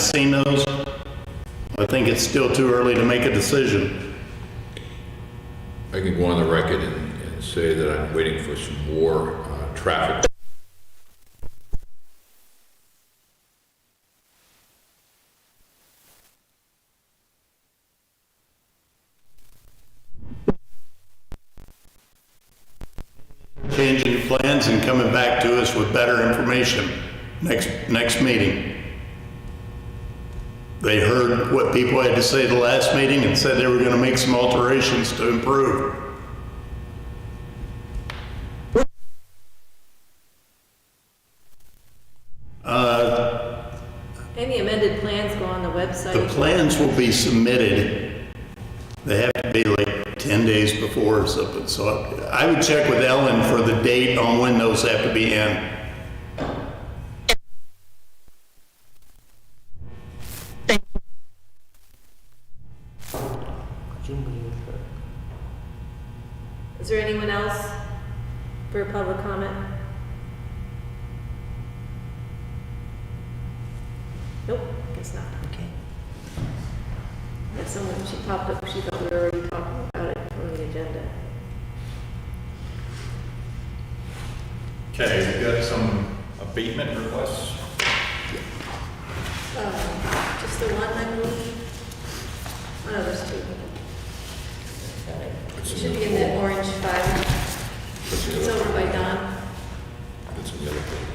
seen those. I think it's still too early to make a decision. I can go on the record and, and say that I'm waiting for some more, uh, traffic. Changing the plans and coming back to us with better information next, next meeting. They heard what people had to say the last meeting and said they were gonna make some alterations to improve. Any amended plans go on the The website. plans will be submitted. They have to be like 10 days before or something, so I I would check with Ellen for the date on when those have to be in. Is there anyone else for a public comment? Nope, guess not. Okay. That someone, she popped up, she thought we were already talking about it on the agenda. Okay, we've got some abatement requests. Um, Just the one, I believe? Oh, no, there's two. It should be in that orange file. That's the It's other, over by Don. that's the other thing.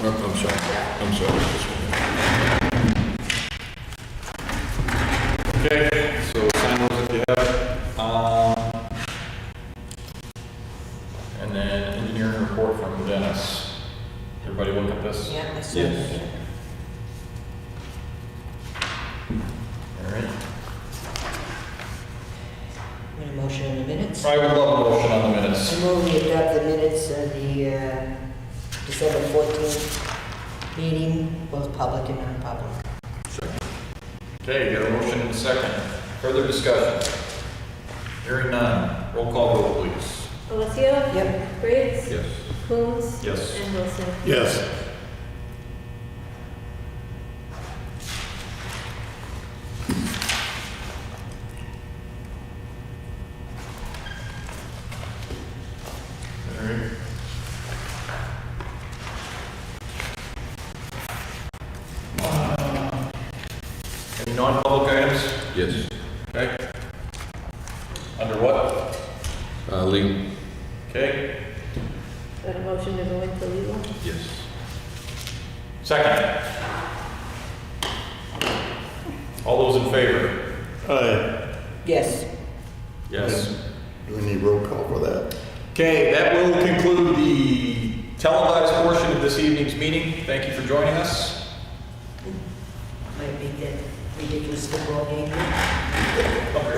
I'm, I'm sorry, Oh, I'm sorry. this one. Okay, so sign those if you have. Um, And then engineering report from Dennis. Everybody look at this? Yeah, I saw Yes. that. All right. Need a motion in the minutes? I would love a motion on the minutes. I move we adopt the minutes of the uh, December 14th meeting, both public and non-public. Okay, got a motion and a second. Further discussion? Hearing none. Roll call vote, please. Alessio? Yep. Briggs? Yes. Coombs? Yes. And Wilson? Yes. All right. Any non-public items? Yes. Okay. Under what? Uh, legal. Okay. Got a motion to go into legal? Yes. Second. All those in favor? Uh, Yes. Yes. Do we need roll call for that? Okay, that will conclude the televised portion of this evening's meeting. Thank you for joining us. Might be that ridiculous football game.